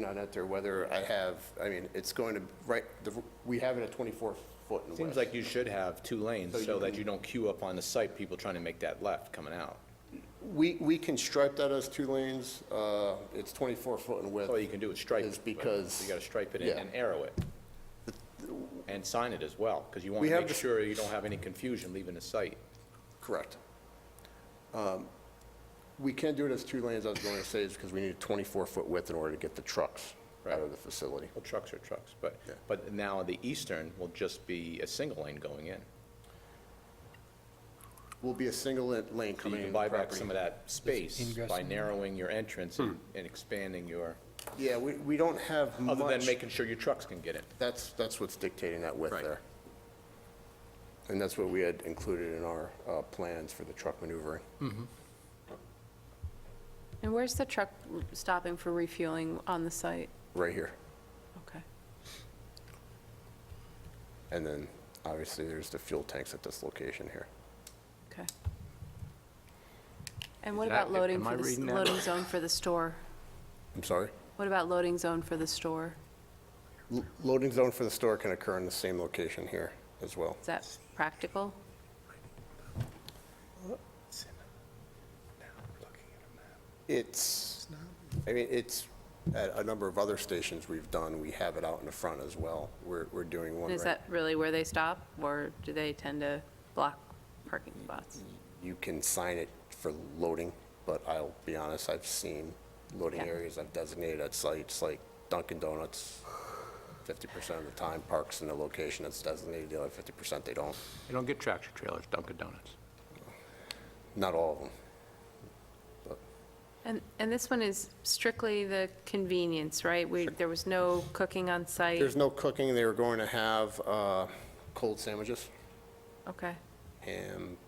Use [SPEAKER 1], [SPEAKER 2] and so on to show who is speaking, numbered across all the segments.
[SPEAKER 1] not enter, whether I have, I mean, it's going to, right, the- we have it at 24 foot and
[SPEAKER 2] Seems
[SPEAKER 1] west.
[SPEAKER 2] like you should have two
[SPEAKER 1] So
[SPEAKER 2] lanes
[SPEAKER 1] you
[SPEAKER 2] so that
[SPEAKER 1] can-
[SPEAKER 2] you don't queue up on the site, people trying to make that left coming out.
[SPEAKER 1] We, we can stripe that as two lanes, uh, it's 24 foot in width.
[SPEAKER 2] All Oh, you can do is stripe it.
[SPEAKER 1] Is
[SPEAKER 2] but
[SPEAKER 1] because-
[SPEAKER 2] You gotta stripe it and-
[SPEAKER 1] yeah.
[SPEAKER 2] and arrow it. And sign it as well, because you
[SPEAKER 1] We
[SPEAKER 2] wanna
[SPEAKER 1] have
[SPEAKER 2] make
[SPEAKER 1] this-
[SPEAKER 2] sure you don't have any confusion leaving the site.
[SPEAKER 1] Correct. Um, We can do it as two lanes, I was going to say, is because we need 24 foot width in order to get the trucks out of
[SPEAKER 2] Right.
[SPEAKER 1] the facility.
[SPEAKER 2] Well, trucks are trucks, but,
[SPEAKER 1] Yeah.
[SPEAKER 2] but now the eastern will just be a single lane going in.
[SPEAKER 1] Will be a single la- lane
[SPEAKER 2] So you
[SPEAKER 1] coming
[SPEAKER 2] can
[SPEAKER 1] in
[SPEAKER 2] buy
[SPEAKER 1] the
[SPEAKER 2] back
[SPEAKER 1] property.
[SPEAKER 2] some of that space
[SPEAKER 3] ingress
[SPEAKER 2] by
[SPEAKER 3] and-
[SPEAKER 2] narrowing your entrance and
[SPEAKER 4] Hmm.
[SPEAKER 2] and expanding your,
[SPEAKER 1] Yeah, we, we don't have much.
[SPEAKER 2] other than making sure your trucks can get in.
[SPEAKER 1] That's, that's what's dictating that width
[SPEAKER 2] Right.
[SPEAKER 1] there. And that's what we had included in our uh, plans for the truck maneuvering.
[SPEAKER 5] And where's the truck stopping for refueling on the site?
[SPEAKER 1] right here.
[SPEAKER 5] Okay.
[SPEAKER 1] And then, obviously, there's the fuel tanks at this location here.
[SPEAKER 5] Okay. And what
[SPEAKER 4] Is
[SPEAKER 5] about
[SPEAKER 4] that- am
[SPEAKER 5] loading
[SPEAKER 4] I
[SPEAKER 5] for the, s-
[SPEAKER 4] reading that?
[SPEAKER 5] loading zone for the store?
[SPEAKER 1] I'm sorry?
[SPEAKER 5] What about loading zone for the store?
[SPEAKER 1] L- Loading zone for the store can occur in the same location here as well.
[SPEAKER 5] Is that practical?
[SPEAKER 1] It's, I mean, it's, at a number of other stations we've done, we have it out in the front as well. We're, we're doing one
[SPEAKER 5] And
[SPEAKER 1] right.
[SPEAKER 5] is that really where they stop, or do they tend to block parking spots?
[SPEAKER 1] You can sign it for loading, but I'll be honest, I've seen loading
[SPEAKER 5] Yeah.
[SPEAKER 1] areas I've designated at sites like Dunkin' Donuts, 50% of the time parks in the location that's designated, the other 50% they don't.
[SPEAKER 4] They don't get tractor trailers, Dunkin' Donuts.
[SPEAKER 1] Not all of them.
[SPEAKER 5] And, and this one is strictly the convenience, right? We, there was no cooking on site?
[SPEAKER 1] There's no cooking, they were going to have uh, cold sandwiches,
[SPEAKER 5] Okay,
[SPEAKER 1] ham,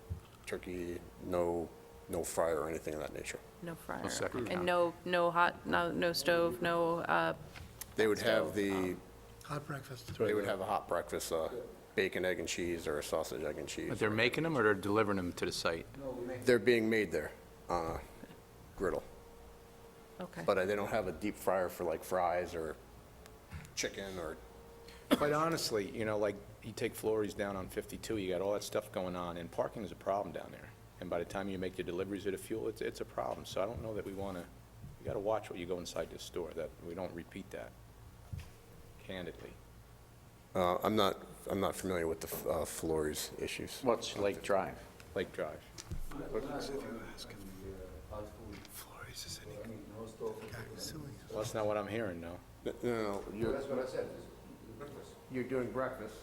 [SPEAKER 1] turkey, no, no fryer or anything of that nature.
[SPEAKER 5] no fryer?
[SPEAKER 4] second
[SPEAKER 5] And
[SPEAKER 4] that.
[SPEAKER 5] no, no hot, no, no stove, no, uh,
[SPEAKER 1] They would have the,
[SPEAKER 3] um, Hot breakfast.
[SPEAKER 1] they would have a hot breakfast, uh, bacon, egg and cheese, or a sausage, egg and cheese.
[SPEAKER 4] But they're making them or they're delivering them to the site?
[SPEAKER 1] They're being made there on a griddle.
[SPEAKER 5] okay.
[SPEAKER 1] But uh, they don't have a deep fryer for like fries or chicken or,
[SPEAKER 2] Quite honestly, you know, like, you take Florrie's down on 52, you got all that stuff going on, and parking is a problem down there. And by the time you make your deliveries of the fuel, it's, it's a problem. So I don't know that we want to, you got to watch what you go inside this store, that we don't repeat that candidly.
[SPEAKER 1] Uh, I'm not, I'm not familiar with the uh, Flores issues.
[SPEAKER 6] What's Lake Drive?
[SPEAKER 2] Lake Drive. Well, That's not what I'm hearing, no.
[SPEAKER 1] No, no, no, you're. That's what I said. You're doing breakfast.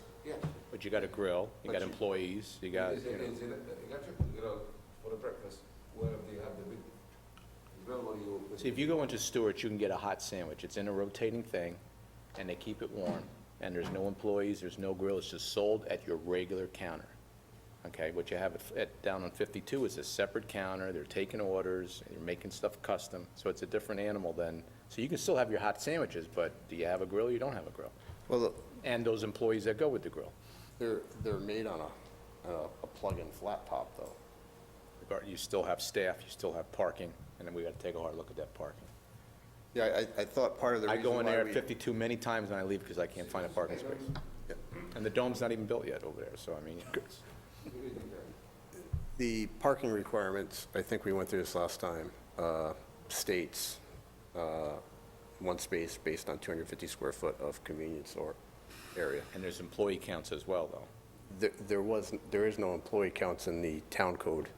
[SPEAKER 2] But you got a grill, you got employees, you got,
[SPEAKER 7] Is it,
[SPEAKER 2] you know,
[SPEAKER 7] is it, you got your grill for the breakfast, wherever you have the big grill or you.
[SPEAKER 2] see, if you go into Stewart's, you can get a hot sandwich. It's in a rotating thing, and they keep it warm, and there's no employees, there's no grill, it's just sold at your regular counter. Okay, what you have at- at, down on 52 is a separate counter, they're taking orders, and you're making stuff custom, so it's a different animal than, so you can still have your hot sandwiches, but do you have a grill, you don't have a grill?
[SPEAKER 1] Well, look,
[SPEAKER 2] And those employees that go with the grill.
[SPEAKER 1] they're, they're made on a, on a- a plug-in flat top, though.
[SPEAKER 2] regard- You still have staff, you still have parking, and then we got to take a hard look at that parking.
[SPEAKER 1] Yeah, I, I thought part of the
[SPEAKER 2] I
[SPEAKER 1] reason
[SPEAKER 2] go in
[SPEAKER 1] why
[SPEAKER 2] there at
[SPEAKER 1] we-
[SPEAKER 2] 52 many times and I leave because I can't find a parking space. And the dome's not even built yet over there, so I mean, it's-
[SPEAKER 1] The parking requirements, I think we went through this last time, uh, states uh, one space based on 250 square foot of convenience or area.
[SPEAKER 2] and there's employee counts as well, though.
[SPEAKER 1] There- There was, there is no employee counts in the town code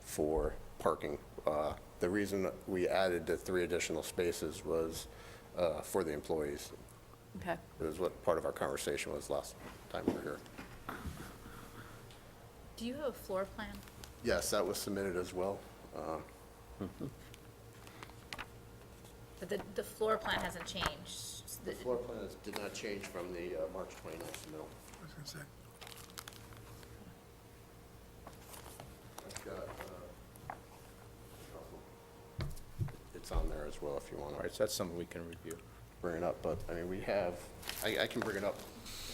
[SPEAKER 1] for parking. Uh, The reason we added the three additional spaces was uh, for the employees.
[SPEAKER 5] Okay,
[SPEAKER 1] It was what part of our conversation was last time we were here.
[SPEAKER 8] Do you have a floor plan?
[SPEAKER 1] Yes, that was submitted as well. Uh,
[SPEAKER 8] But the, the floor plan hasn't changed.
[SPEAKER 1] The floor plan is- did not change from the uh, March 29th submittal. I've got, uh, It's on there as well if you want
[SPEAKER 2] All
[SPEAKER 1] to
[SPEAKER 2] right, so that's something we can review.
[SPEAKER 1] bring it up, but, I mean, we have, I, I can bring it up.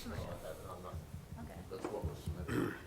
[SPEAKER 8] Okay.
[SPEAKER 1] That's what was submitted.